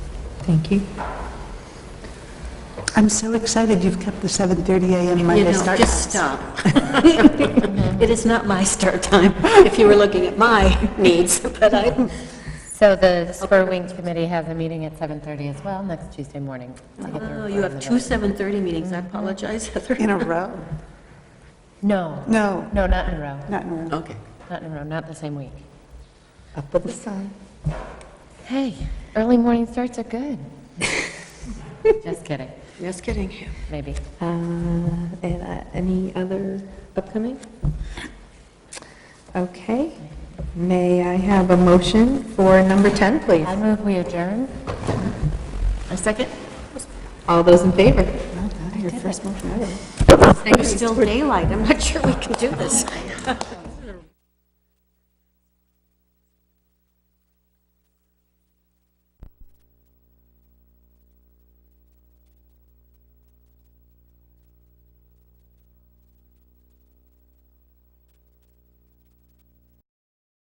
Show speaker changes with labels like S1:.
S1: Thank you.
S2: I'm so excited you've kept the 7:30 a.m. Monday
S3: You know,
S2: start.
S3: just stop. It is not my start time, if you were looking at my needs, but I,
S4: So the Spur Wing Committee has a meeting at 7:30 as well, next Tuesday morning. to get the
S3: oh,
S4: report
S3: you
S4: on
S3: have
S4: the
S3: two
S4: vote.
S3: 7:30 meetings, I apologize, Heather.
S2: In a row?
S4: No.
S2: No.
S4: No, not in a row,
S2: Not in a row.
S3: Okay.
S4: not in a row, not the same week.
S1: Up with the sun.
S4: Hey, early morning starts are good. Just kidding,
S3: Just kidding.
S4: maybe.
S1: Uh, And uh, any other upcoming? Okay. May I have a motion for number 10, please?
S4: I move we adjourn.
S3: A second?
S1: All those in favor?
S2: Your first motion.
S3: It's still daylight, I'm not sure we can do this.